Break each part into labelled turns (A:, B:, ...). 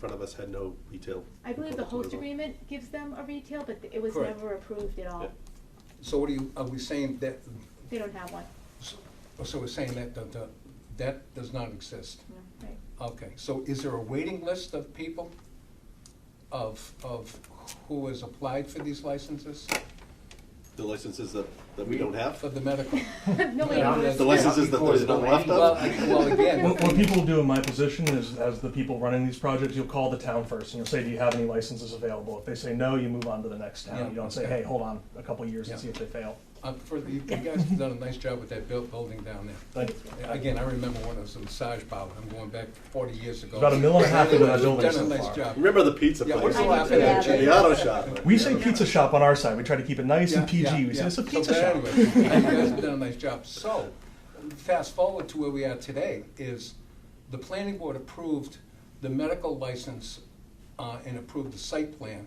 A: front of us had no retail.
B: I believe the host
A: proposal.
B: agreement gives them a retail, but it was
C: Correct.
B: never approved at all.
A: Yeah.
C: So what are you, are we saying that,
B: They don't have one.
C: so so we're saying that, the- the- that does not exist?
B: No, Right.
C: Okay, so is there a waiting list of people of, of who has applied for these licenses?
A: The licenses that, that we
D: We-
A: don't have?
C: For the medical?
B: No
C: Yeah,
B: waiting list.
A: The licenses that there's none left
C: Well,
A: of?
C: I- well, again.
E: What, what people do in my position is, as the people running these projects, you'll call the town first and you'll say, do you have any licenses available? If they say no, you move on to the next town.
C: Yeah,
E: You don't say,
C: okay.
E: hey, hold on a couple years and
C: Yeah.
E: see if they fail.
C: Uh, for the, you guys have done a nice job with that buil- building down there.
E: Like,
C: Again, I remember when it was a massage parlor, I'm going back forty years ago.
E: About a mill and a half into that building
C: Done a
E: so
C: nice
E: far.
C: job.
A: Remember the pizza
C: Yeah,
A: place?
C: we're
B: still after that,
A: And
B: Jay.
A: The auto shop.
E: we say pizza shop on our side. We try to keep it nice and PG.
C: Yeah, yeah,
E: we
C: yeah.
E: say it's a
C: So,
E: pizza
C: but
E: shop.
C: anyway, You guys have done a nice job. So, fast forward to where we are today, is the planning board approved the medical license uh, and approved the site plan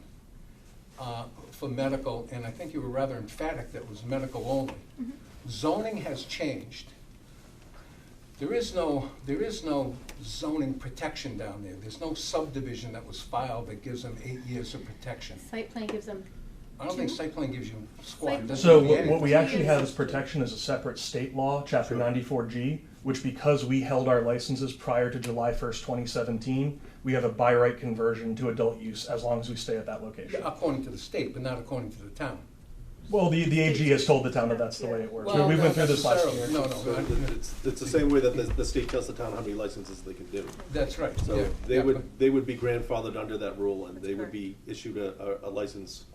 C: uh, for medical, and I think you were rather emphatic that it was medical only. Zoning has changed. There is no, there is no zoning protection down there. There's no subdivision that was filed that gives them eight years of protection.
B: Site plan gives them,
C: I don't think
B: Two?
C: site plan gives you
B: Site-
C: squat. It doesn't
E: So
C: give you
E: what, what we
C: anything.
E: actually have as protection is a separate state law, Chapter
A: Sure.
E: 94G, which because we held our licenses prior to July 1st, 2017, we have a by right conversion to adult use as long as we stay at that location.
C: Yeah, According to the state, but not according to the town.
E: Well, the, the AG has told the town that that's the way it works.
C: Well,
E: we we
C: not
E: went through this last year.
C: necessarily. No, no,
A: So
C: I-
A: It's, it's the same way that the, the state tells the town how many licenses they can do.
C: that's right.
A: So
C: yeah,
A: they
C: yeah,
A: would, they would be grandfathered under that rule and they
B: That's
A: would be issued a, a a license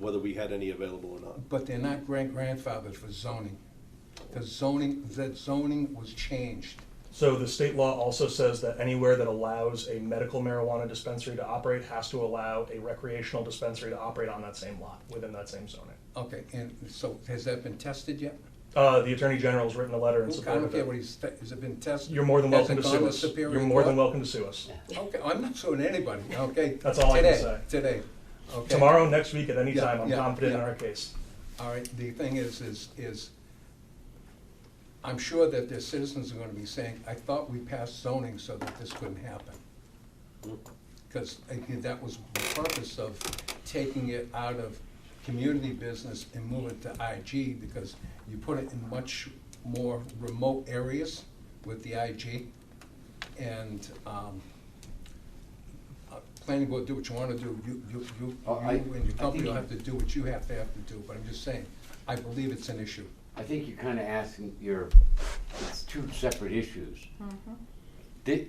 A: whether we had any available or not.
C: but- But they're not grand grandfathers for zoning. The zoning, that zoning was changed.
E: So the state law also says that anywhere that allows a medical marijuana dispensary to operate has to allow a recreational dispensary to operate on that same lot within that same zoning.
C: Okay, and so has that been tested yet?
E: Uh, the attorney general's written a letter in
C: I
E: support
C: don't
E: of
C: care what
E: it.
C: he's, te- has it been tested?
E: You're more than
C: Has
E: welcome
C: it
E: to
C: gone
E: sue us.
C: Superior
E: You're more than
C: Court?
E: welcome to sue us.
C: Okay, I'm not suing anybody, okay?
E: That's all I can
C: Today,
E: say.
C: Today, okay?
E: Tomorrow, next week, at any
C: Yeah,
E: time, I'm
C: yeah,
E: confident in
C: yeah.
E: our case.
C: All right, the thing is, is, is, I'm sure that their citizens are gonna be saying, I thought we passed zoning so that this couldn't happen. Because that was the purpose of taking it out of community business and move it to IG, because you put it in much more remote areas with the IG. And, um, uh, planning board, do what you wanna do, you, you, you,
D: Oh, I-
C: you and your company
D: I think
C: will
D: you-
C: have to do what you have to have to do, but I'm just saying, I believe it's an issue.
D: I think you're kind of asking your, it's two separate issues. Thi-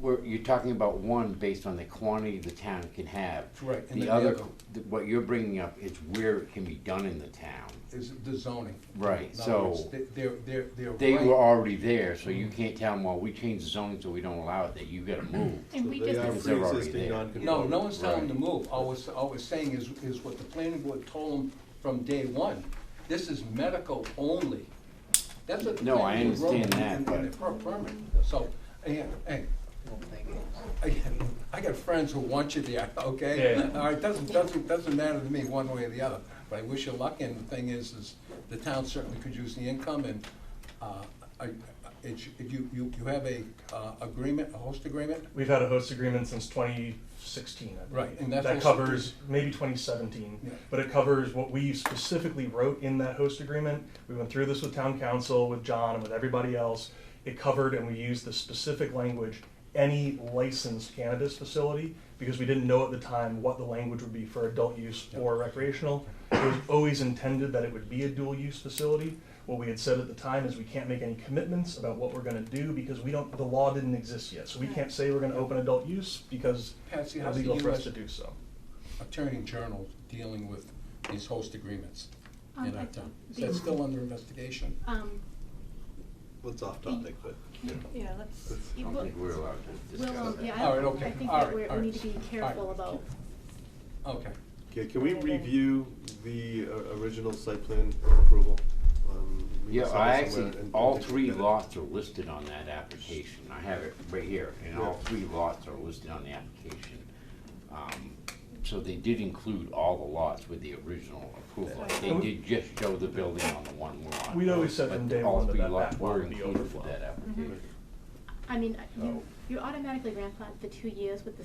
D: where you're talking about one based on the quantity the town can have.
C: Correct, and then
D: The
C: the
D: other,
C: other-
D: th- what you're bringing up is where it can be done in the town.
C: is the zoning.
D: Right,
C: In other words,
D: so
C: they- They're, they're, they're
D: They were
C: right. Mm-hmm.
D: already there, so you can't tell them, well, we changed the zoning so we don't allow it, that you gotta move.
B: and we
A: They
B: just,
A: are
D: Because they're already
A: pre-existing
D: there.
A: non-conforming.
C: No, no one's telling them to
D: Right.
C: move, all we're, s- all we're saying is, is what the planning board told them from day one. This is medical only. That's what the
D: No, I
C: planning board wrote
D: understand
C: in-
D: that,
C: in-
D: but-
C: In the per- permit, so, yeah, hey. Again, I got friends who want you there, okay?
E: Yeah.
C: All right, doesn't, doesn't, doesn't matter to me one way or the other, but I wish you luck, and the thing is, is the town certainly could use the income, and, uh, I, it's, you, you, you have a, uh, agreement, a host agreement?
E: We've had a host agreement since 2016, I believe.
C: Right, and that's
E: that
C: also-
E: covers maybe 2017,
C: Yeah.
E: but it covers what we specifically wrote in that host agreement. We went through this with town council, with John, and with everybody else. It covered, and we used the specific language, any licensed cannabis facility, because we didn't know at the time what the language would be for adult use or recreational. It was always intended that it would be a dual use facility. What we had said at the time is we can't make any commitments about what we're gonna do because we don't, the law didn't exist yet. So we can't say we're gonna open adult use because it's
C: Patsy, how's the
E: illegal for us
C: US
E: to do so.
C: attorney general dealing with these host agreements in
B: Um, I
C: our
B: think
C: town. Is
B: the-
C: that still under investigation?
B: um,
A: It's off topic, but.
F: Yeah, let's,
D: I
B: it
D: don't
B: will,
D: think we're allowed to
B: will,
D: discuss
B: um,
D: that.
B: yeah,
C: All
B: I
C: right,
B: don't,
C: okay.
B: I think
C: All
B: that
C: right,
B: we're,
C: all
B: we
C: right.
B: need to be
C: All
B: careful
C: right.
B: about,
C: Okay.
A: Okay, can we review the uh, original site plan approval? Um, we
D: Yeah,
A: saw
D: I
A: this somewhere
D: actually,
A: and-
D: all three lots are listed on that application. I have it right here, and all
A: Yeah.
D: three lots are listed on the application. Um, So they did include all the lots with the original approval. They
E: And we-
D: did just show the building on the one lot.
E: We'd always said
D: but
E: from day
D: all
E: one that
D: three
E: that
D: lots
E: back lot
D: were
E: would be
D: included with
E: overflow. Mm-hmm.
D: that application.
B: I mean, you,
D: So-
B: you automatically grandfather the two years with the